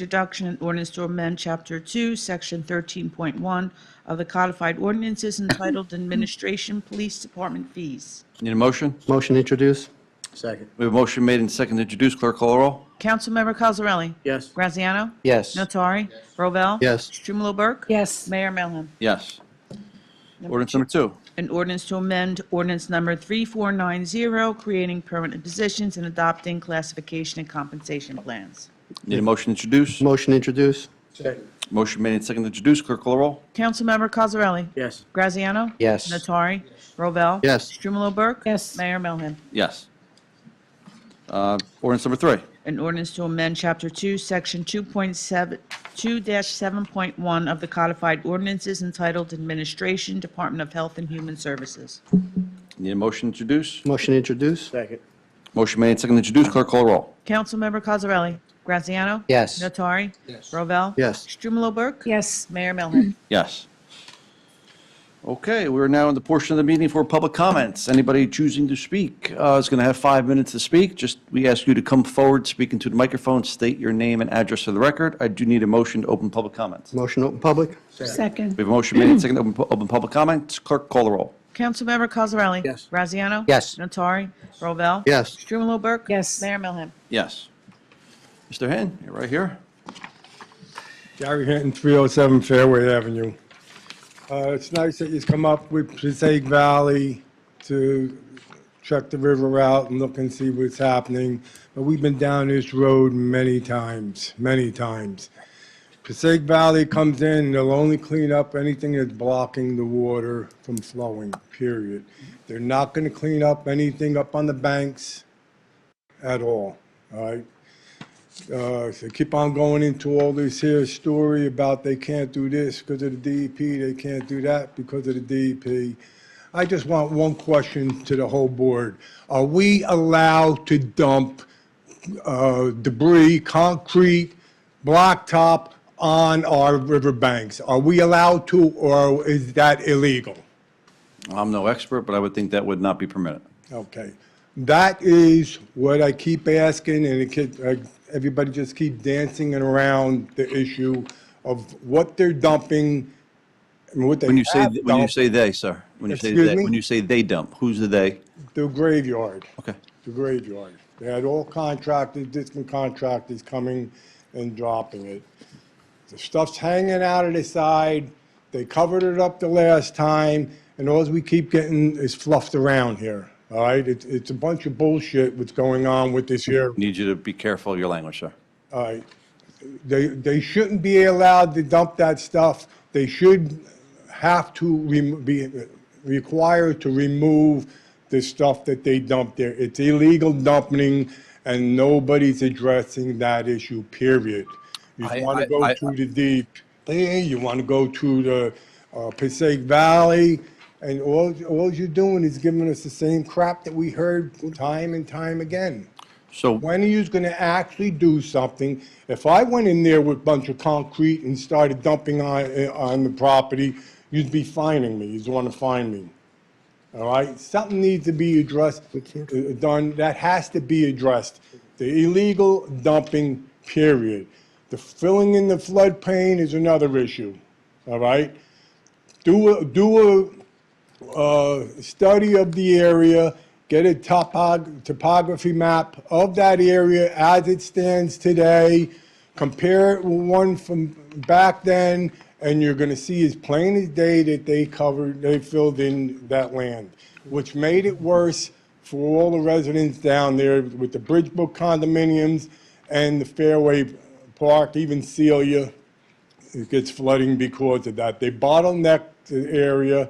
Introduction and ordinance to amend Chapter 2, Section 13.1 of the codified ordinances entitled Administration Police Department Fees. Need a motion? Motion to introduce? Second. We have a motion made and second to introduce. Clerk call the roll. Councilmember Cosarelli? Yes. Graziano? Yes. Notari? Rovell? Yes. Strumelob Burke? yes, Mayor Melham? Yes. Ordinance number two. An ordinance to amend ordinance number 3490, creating permanent positions and adopting classification and compensation plans. Need a motion to introduce. Motion to introduce? Second. Motion made and second to introduce. Clerk call the roll. Councilmember Cosarelli? Yes. Graziano? Yes. Natari, Rovell? Yes. Strumelob Burke? Yes. Mayor Melham? Yes. Uh, Ordinance number three. An ordinance to amend Chapter 2, Section 2.7, 2-7.1 of the codified ordinances entitled Administration, Department of Health and Human Services. Need a motion to introduce. Motion to introduce? Second. Motion made and second to introduce. Clerk call the roll. Councilmember Cosarelli? Graziano? Yes. Natari, Rovell? Yes. Strumelob Burke? yes. Mayor Melham? Yes. Okay, we're now in the portion of the meeting for public comments. Anybody choosing to speak uh, is going to have five minutes to speak. Just, we ask you to come forward, speak into the microphone, state your name and address for the record. I do need a motion to open public comments. We Motion open public? Second, have a motion made and second to open pu- open public comments. Clerk, call the roll. Councilmember Cosarelli? Yes. Graziano? Yes. Natari, Rovell? Yes. Strumelob Burke? Yes. Mayor Melham? Yes. Mr. Hen, you're right here. Gary Hinton, 307 Fairway Avenue. Uh, It's nice that you've come up with Passaic Valley to check the river out and look and see what's happening, but we've been down this road many times, many times. Passaic Valley comes in, and they'll only clean up anything that's blocking the water from flowing, period. They're not going to clean up anything up on the banks at all, all right? uh, they keep on going into all this here story about they can't do this because of the DEP, they can't do that because of the DEP. I just want one question to the whole board. Are we allowed to dump uh, debris, concrete, blacktop on our riverbanks? Are we allowed to, or is that illegal? I'm no expert, but I would think that would not be permitted. Okay. That is what I keep asking, and it keep- uh, everybody just keep dancing around the issue of what they're dumping and what they When you say, have when you dumped, say "they," sir, when you say Excuse "they," me? when you say "they dump," who's the "they"? the graveyard, Okay. the graveyard. They had all contractors, distant contractors coming and dropping it. The stuff's hanging out of the side, they covered it up the last time, and all we keep getting is fluffed around here, all right? It's, it's a bunch of bullshit what's going on with this here Need you to be careful of your language, sir. All right. They, they shouldn't be allowed to dump that stuff. They should have to rem- be required to remove the stuff that they dump there. It's illegal dumping, and nobody's addressing that issue, period. You I- want I- to go I- to the DEP, you want to go to the uh, Passaic Valley, and all, all you're doing is giving us the same crap that we heard time and time again. So When are you going to actually do something? If I went in there with a bunch of concrete and started dumping on, eh, on the property, you'd be fining me, you'd want to fine me. All right, something needs to be addressed, eh, done, that has to be addressed. The illegal dumping, period. The filling in the floodplain is another issue, all right? Do a, do a uh, study of the area, get a topog, topography map of that area as it stands today, compare it with one from back then, and you're gonna see as plain as day that they covered, they filled in that land, which made it worse for all the residents down there with the Bridgebrook condominiums and the Fairway Park, even Celia it gets flooding because of that. They bottleneck the area,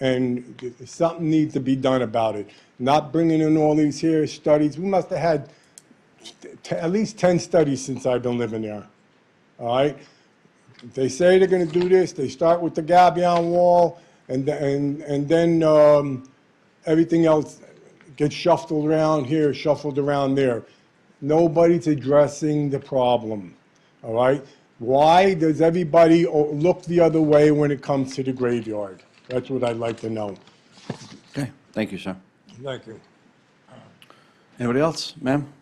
and something needs to be done about it. Not bringing in all these here studies, we must have had t- at least 10 studies since I've been living there, all right? They say they're gonna do this, they start with the gabion wall, and, th- and, and then, um, everything else gets shuffled around here, shuffled around there. Nobody's addressing the problem, all right? Why does everybody o- look the other way when it comes to the graveyard? That's what I'd like to know. Okay, thank you, sir. Thank you. Anybody else, ma'am?